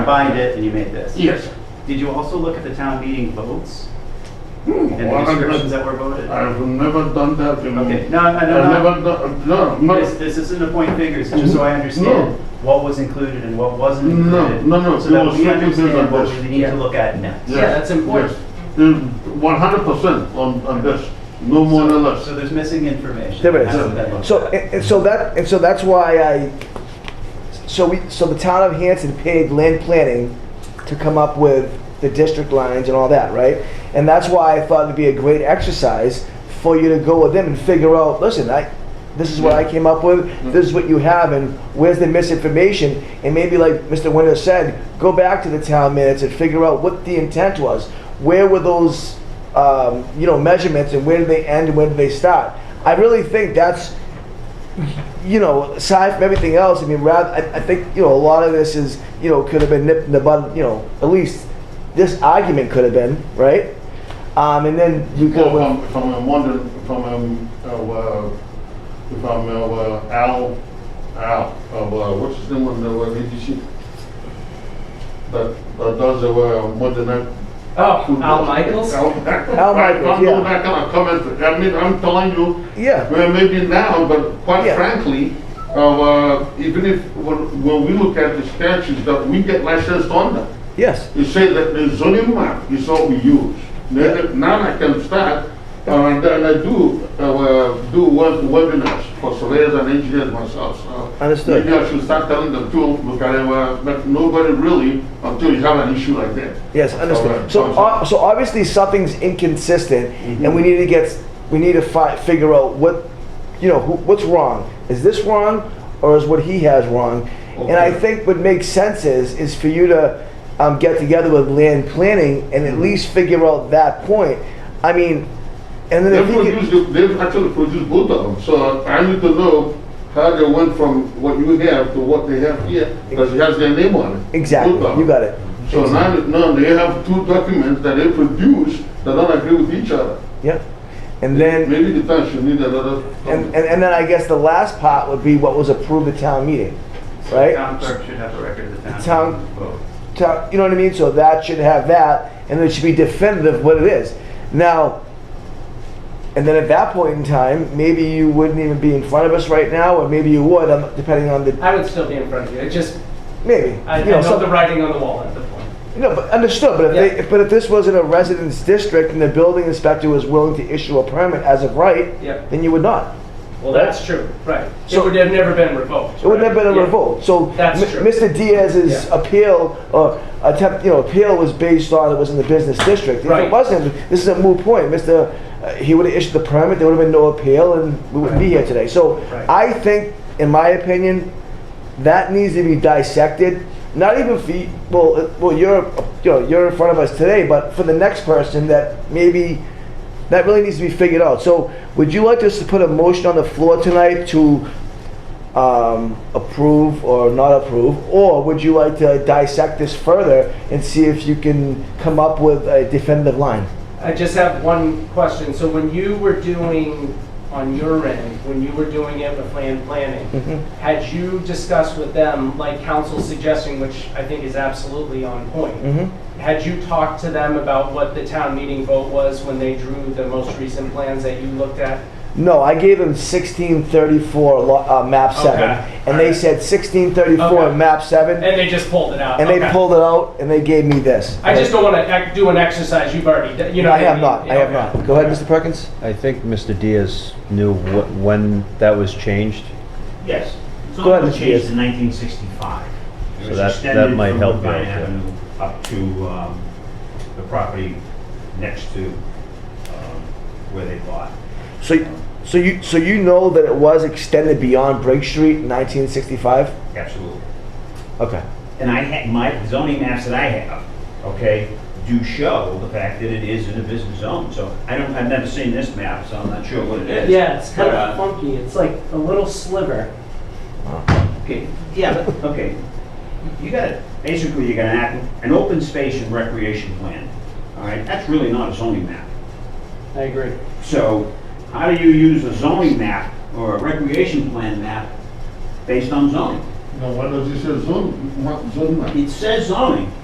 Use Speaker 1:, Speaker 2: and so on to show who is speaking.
Speaker 1: combined it and you made this.
Speaker 2: Yes.
Speaker 1: Did you also look at the town meeting votes and the
Speaker 2: Hmm, Well,
Speaker 1: descriptions
Speaker 2: I've
Speaker 1: that were voted?
Speaker 2: I've never done that, you know.
Speaker 1: Okay, no, I- I
Speaker 2: I've
Speaker 1: know not-
Speaker 2: never done, no,
Speaker 1: This,
Speaker 2: no,
Speaker 1: this isn't a point fingers, it's just so I understand what was included and what wasn't
Speaker 2: No,
Speaker 1: included.
Speaker 2: no, no,
Speaker 1: So
Speaker 2: there
Speaker 1: that
Speaker 2: was
Speaker 1: we
Speaker 2: nothing
Speaker 1: understand
Speaker 2: there
Speaker 1: what
Speaker 2: on
Speaker 1: we
Speaker 2: this.
Speaker 1: need
Speaker 3: Yeah.
Speaker 1: to look at next.
Speaker 3: Yeah, that's important.
Speaker 2: One hundred percent on, on this, no more or less.
Speaker 1: So there's missing information.
Speaker 4: There
Speaker 1: That's what that
Speaker 4: is.
Speaker 1: looks
Speaker 4: So,
Speaker 1: at.
Speaker 4: and and so that, and so that's why I, so we, so the town of Hanson paid land planning to come up with the district lines and all that, right? And that's why I thought it'd be a great exercise for you to go with them and figure out, listen, I, this is what I came up with, this is what you have, and where's the misinformation? And maybe like Mr. Winter said, go back to the town minutes and figure out what the intent was. Where were those, um, you know, measurements and where did they end and where did they start? I really think that's, you know, aside from everything else, I mean, rather, I, I think, you know, a lot of this is, you know, could have been nipped in the bud, you know, at least this argument could have been, right? Um, and then you could have.
Speaker 2: Well, from, from um, London, from, um, uh, uh, from, uh, uh, Al, Al, of, uh, what's his name, on the, uh, VGC? That, that does, the, uh, modern. act-
Speaker 3: Oh, Al Michaels?
Speaker 2: Al
Speaker 4: Al Michaels,
Speaker 2: I'm
Speaker 4: yeah.
Speaker 2: not that kind of comment, I mean, I'm telling you,
Speaker 4: yeah.
Speaker 2: well, maybe now, but quite
Speaker 4: Yeah.
Speaker 2: frankly, uh, uh, even if, when, when we look at the statutes that we get licensed under,
Speaker 4: Yes.
Speaker 2: you say that the zoning map is what we use. Then, now I can start, uh, and then I do, uh, uh, do web- webinars for surveyors and engineers myself, so.
Speaker 4: Understood.
Speaker 2: Maybe I should start telling them too, because, uh, but nobody really, until you have an issue like that.
Speaker 4: Yes.
Speaker 2: Alright,
Speaker 4: Understood. So,
Speaker 2: sounds
Speaker 4: uh, so obviously something's inconsistent, and we need to get, we need to fi- figure out what, you know, who, what's wrong. Is this wrong, or is what he has wrong? And I
Speaker 2: Okay.
Speaker 4: think what makes sense is is for you to um, get together with land planning and at least figure out that point. I mean, and then
Speaker 2: They
Speaker 4: if you could-
Speaker 2: produced, the- they've actually produced both of them, so I need to know how they went from what you have to what they have here, because it has their name on it.
Speaker 4: exactly,
Speaker 2: Both of them.
Speaker 4: you got it.
Speaker 2: So now, now they have two documents that they produce that don't agree with each other.
Speaker 4: Yep. And then
Speaker 2: Maybe the town should need another.
Speaker 4: And, and, and then I guess the last part would be what was approved at town meeting,
Speaker 1: So the
Speaker 4: eh, right?
Speaker 1: Town clerk should have a record of the town.
Speaker 4: Town-
Speaker 1: meeting votes.
Speaker 4: Town- You know what I mean? So that should have that, and it should be definitive what it is. Now, and then at that point in time, maybe you wouldn't even be in front of us right now, or maybe you would, um, depending on the,
Speaker 3: I would still be in front of you. It just,
Speaker 4: maybe.
Speaker 3: I I
Speaker 4: you know,
Speaker 3: know
Speaker 4: some-
Speaker 3: the writing on the wall at the point.
Speaker 4: No, but understood, but if they,
Speaker 3: Yeah.
Speaker 4: if- but if this wasn't a residence district and the building inspector was willing to issue a permit as of right,
Speaker 3: Yep.
Speaker 4: then you would not.
Speaker 3: Well, that's true, right. It
Speaker 4: So-
Speaker 3: would have never been revoked.
Speaker 4: It would have
Speaker 3: right?
Speaker 4: been a
Speaker 3: Yeah.
Speaker 4: revolt. So
Speaker 3: That's
Speaker 4: M-
Speaker 3: true.
Speaker 4: Mr. Diaz's
Speaker 3: Yeah.
Speaker 4: appeal, or attempt, you know, appeal was based on it was in the business district. If
Speaker 3: Right.
Speaker 4: it wasn't, this is a moot point. Mr., uh, he would have issued the permit, there would have been no appeal, and we wouldn't be here today. So
Speaker 3: Right.
Speaker 4: I think, in my opinion, that needs to be dissected. Not even for, y- well, uh, well, you're, you know, you're in front of us today, but for the next person that maybe that really needs to be figured out. So, would you like us to put a motion on the floor tonight to um, approve or not approve? Or would you like to dissect this further and see if you can come up with a definitive line?
Speaker 3: I just have one question. So when you were doing, on your end, when you were doing it with land planning,
Speaker 4: Mm-hmm.
Speaker 3: had you discussed with them, like council's suggesting, which I think is absolutely on point,
Speaker 4: Mm-hmm.
Speaker 3: had you talked to them about what the town meeting vote was when they drew the most recent plans that you looked at?
Speaker 4: No, I gave them 1634 lo- uh, map 7.
Speaker 3: Okay.
Speaker 4: And they said 1634
Speaker 3: Okay.
Speaker 4: map 7. And,
Speaker 3: And they just pulled it out?
Speaker 4: they
Speaker 3: Okay.
Speaker 4: pulled it out and they gave me this.
Speaker 3: I just don't want to do an exercise you've already, done. you know
Speaker 4: I
Speaker 3: what I
Speaker 4: have
Speaker 3: mean?
Speaker 4: not. I have
Speaker 3: Okay.
Speaker 4: not. Go ahead, Mr. Perkins.
Speaker 5: I think Mr. Diaz knew wh- when that was changed,
Speaker 6: Yes. So
Speaker 4: Go
Speaker 6: that
Speaker 4: ahead,
Speaker 6: was
Speaker 4: Mr.
Speaker 6: changed
Speaker 4: Diaz.
Speaker 6: in 1965. It
Speaker 5: So
Speaker 6: was
Speaker 5: that- that
Speaker 6: extended
Speaker 5: might
Speaker 6: from
Speaker 5: help you
Speaker 6: Woodbine
Speaker 5: out, yeah.
Speaker 6: Avenue up to um, the property next to um, where they bought.
Speaker 4: So, so you so you know that it was extended beyond Brake Street in 1965?
Speaker 6: Absolutely.
Speaker 4: Okay.
Speaker 6: And I had, my zoning maps that I have, okay, do show the fact that it is in a business zone. So I don't, I've never seen this map, so I'm not sure what it is.
Speaker 3: Yeah, it's kind
Speaker 6: But,
Speaker 3: of
Speaker 6: uh,
Speaker 3: funky. It's like a little sliver.
Speaker 6: Okay, yeah, but, okay. You got, basically, you got an, act- an open space and recreation plan, all right? That's really not a zoning map.
Speaker 3: I agree.
Speaker 6: So how do you use a zoning map or a recreation plan map based on zoning?
Speaker 2: Now, why does it say zone, ma- zone map?
Speaker 6: It says zoning,